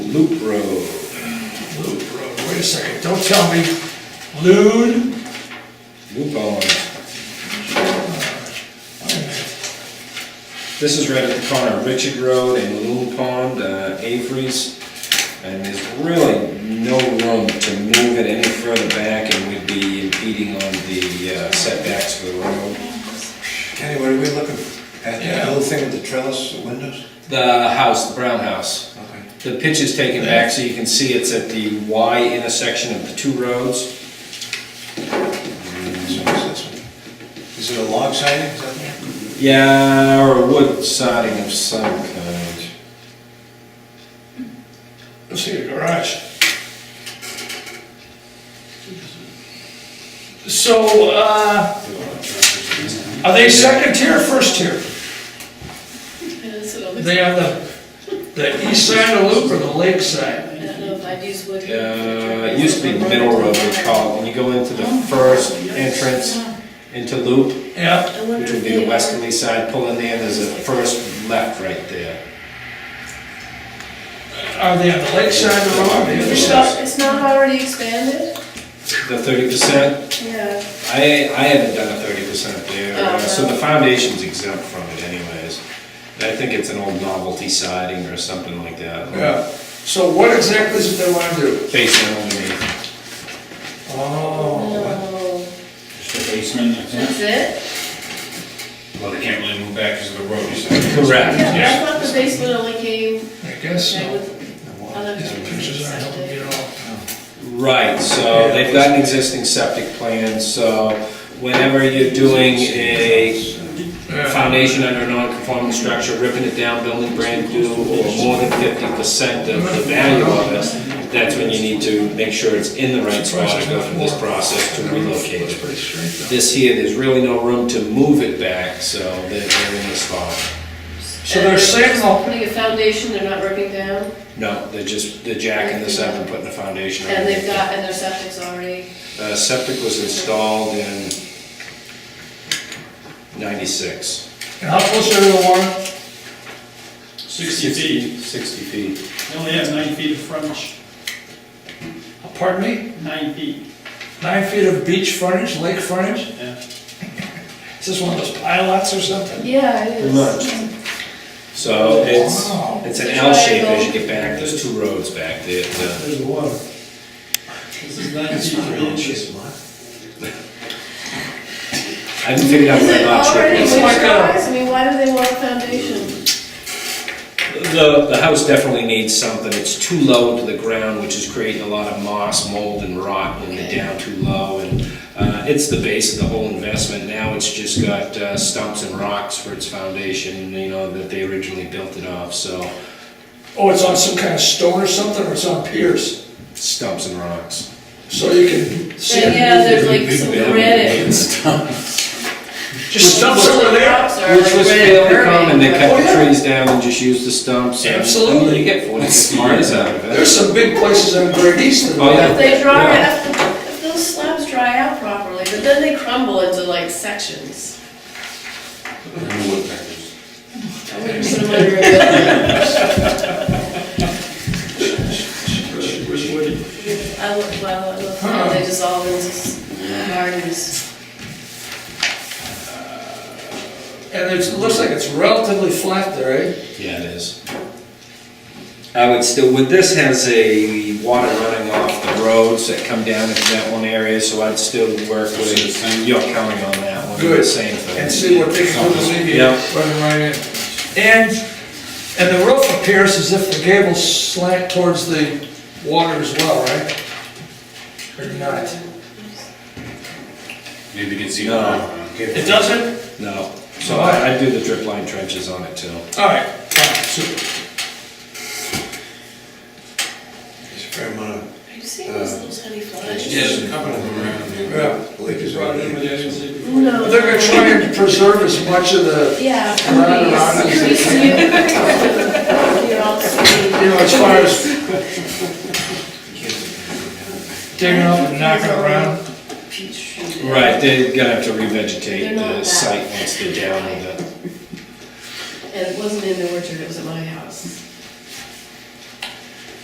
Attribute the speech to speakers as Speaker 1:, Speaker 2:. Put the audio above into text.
Speaker 1: Loop Road.
Speaker 2: Loop Road, wait a second, don't tell me, Loon?
Speaker 1: Loop on.
Speaker 2: Wait a minute.
Speaker 1: This is right at the corner of Richard Road and Little Pond, uh, Avery's. And there's really no room to move it any further back and we'd be impeding on the uh, setbacks for the road.
Speaker 3: Kenny, what are we looking at?
Speaker 2: Yeah.
Speaker 3: That little thing with the trellis, the windows?
Speaker 1: The house, the brown house.
Speaker 3: Okay.
Speaker 1: The pitch is taken back so you can see it's at the Y intersection of the two roads.
Speaker 3: So it's this one. Is it a log siding? Is that-
Speaker 1: Yeah, or wood siding of some kind.
Speaker 2: Let's see, the garage. So, uh, are they second tier, or first tier?
Speaker 1: Uh,
Speaker 4: That's what I was-
Speaker 2: They have the, the east side of Loop or the lake side?
Speaker 4: I don't know if I'd use wood.
Speaker 1: Uh, it used to be the middle road they call it. When you go into the first entrance into Loop,
Speaker 2: Yeah,
Speaker 4: I wonder
Speaker 1: which
Speaker 4: if
Speaker 1: would be the
Speaker 4: they-
Speaker 1: westerly side, pull in there, there's a first left right there.
Speaker 2: are they on the lake side or on the other
Speaker 4: It's
Speaker 2: side?
Speaker 4: not, it's not already expanded?
Speaker 1: The thirty percent,
Speaker 4: Yeah.
Speaker 1: I, I haven't done a thirty percent there, uh, so the foundation's exempt from it anyways. I think it's an old novelty siding or something like that.
Speaker 2: Yeah, so what exactly is it they wanna do?
Speaker 1: Basement underneath.
Speaker 2: Oh,
Speaker 4: No.
Speaker 5: Just the basement, I
Speaker 4: That's
Speaker 5: think.
Speaker 4: it?
Speaker 5: Well, they can't really move back because of the road, you said.
Speaker 1: Correct.
Speaker 4: Yeah, I thought the basement only came,
Speaker 2: I guess
Speaker 4: okay,
Speaker 2: so.
Speaker 4: with
Speaker 3: Well,
Speaker 4: other.
Speaker 2: These pictures aren't helping me at all.
Speaker 1: Right, so they've got an existing septic plan, so whenever you're doing a
Speaker 2: Yeah.
Speaker 1: foundation under a non-conforming structure, ripping it down, building brand new, or more than fifty percent of the value of it, that's when you need to make sure it's in the right spot and go through this process to relocate
Speaker 2: Looks
Speaker 1: it.
Speaker 2: pretty straight though.
Speaker 1: This here, there's really no room to move it back, so they're they're in the spot.
Speaker 2: So they're saying the,
Speaker 4: uh, Putting a foundation, they're not ripping down,
Speaker 1: No, they're just, they're jacking this up and putting a foundation on it.
Speaker 4: and they've got, and their septic's already,
Speaker 1: Uh, septic was installed in ninety-six.
Speaker 2: and how close are they to the water?
Speaker 5: Sixty feet,
Speaker 1: Sixty feet.
Speaker 6: They only have nine feet of frontage,
Speaker 2: Pardon me?
Speaker 6: nine feet.
Speaker 2: Nine feet of beach frontage, lake frontage?
Speaker 6: Yeah.
Speaker 2: Is this one of those pilots or something?
Speaker 4: yeah, it is.
Speaker 1: So it's,
Speaker 2: Wow.
Speaker 1: it's an L shape as you get back, there's two roads back there. It's, uh,
Speaker 6: There's the water. This is nine feet of frontage.
Speaker 1: I haven't figured out
Speaker 4: Is
Speaker 1: what
Speaker 4: it
Speaker 1: lot
Speaker 4: already
Speaker 1: strip is.
Speaker 2: like a-
Speaker 4: winterized? I mean, why do they want a foundation?
Speaker 1: The, the house definitely needs something, it's too low to the ground, which is creating a lot of moss, mold and rot when they're down too low. And, uh, it's the base of the whole investment, now it's just got uh, stumps and rocks for its foundation, you know, that they originally built it off, so
Speaker 2: Oh, it's on some kind of stone or something, or it's on piers,
Speaker 1: stumps and rocks.
Speaker 2: so you can see
Speaker 4: But Yeah,
Speaker 2: it.
Speaker 4: there's like some granite.
Speaker 2: Just stumps over there.
Speaker 4: Rocks are
Speaker 1: Which
Speaker 4: like
Speaker 1: was
Speaker 4: granite
Speaker 1: fairly
Speaker 4: curving,
Speaker 1: common, they
Speaker 4: but-
Speaker 1: cut
Speaker 2: Oh,
Speaker 1: the
Speaker 2: yeah.
Speaker 1: trees down and just used the stumps. and- I mean,
Speaker 2: Absolutely.
Speaker 1: You get forty years out of it.
Speaker 2: There's some big places on Great Eastern.
Speaker 1: Oh, yeah.
Speaker 4: If they dry,
Speaker 1: Yeah.
Speaker 4: if if those slabs dry out properly, but then they crumble into like sections. I wouldn't put 'em under a building.
Speaker 6: Where's Woody?
Speaker 4: I look, well, I look, how they dissolve into s- gardens.
Speaker 2: And it's- it looks like it's relatively flat there, eh?
Speaker 1: Yeah, it is. I would still, with this has a water running off the roads that come down into that one area, so I'd still work with York County on that one, the
Speaker 2: Good.
Speaker 1: same
Speaker 2: And
Speaker 1: thing.
Speaker 2: see what they can do to leave you
Speaker 1: Yeah.
Speaker 2: running right in. uh, And, and the roof appears as if the gables slant towards the water as well, right? Or not?
Speaker 5: Maybe you can see.
Speaker 1: No.
Speaker 2: It doesn't?
Speaker 1: No, so I- I'd do the drip line trenches on it too.
Speaker 2: All right, fine, super.
Speaker 3: There's a fair amount of.
Speaker 4: Are you seeing those little tiny flies?
Speaker 3: Yes, coming around.
Speaker 2: Yeah.
Speaker 3: Lake is
Speaker 6: Brought
Speaker 3: right
Speaker 6: it in with
Speaker 3: here.
Speaker 6: the agency before.
Speaker 4: No.
Speaker 2: They're gonna try and preserve as much of the,
Speaker 4: Yeah,
Speaker 2: Around, around,
Speaker 4: please, please do. You're all sweet.
Speaker 2: you know, as far as digging up and knocking around.
Speaker 4: Peach tree.
Speaker 1: Right, they're gonna have to
Speaker 4: They're
Speaker 1: revegetate
Speaker 4: not
Speaker 1: the
Speaker 4: that-
Speaker 1: site once they're down with it.
Speaker 4: And it wasn't in the orchard, it was at my house.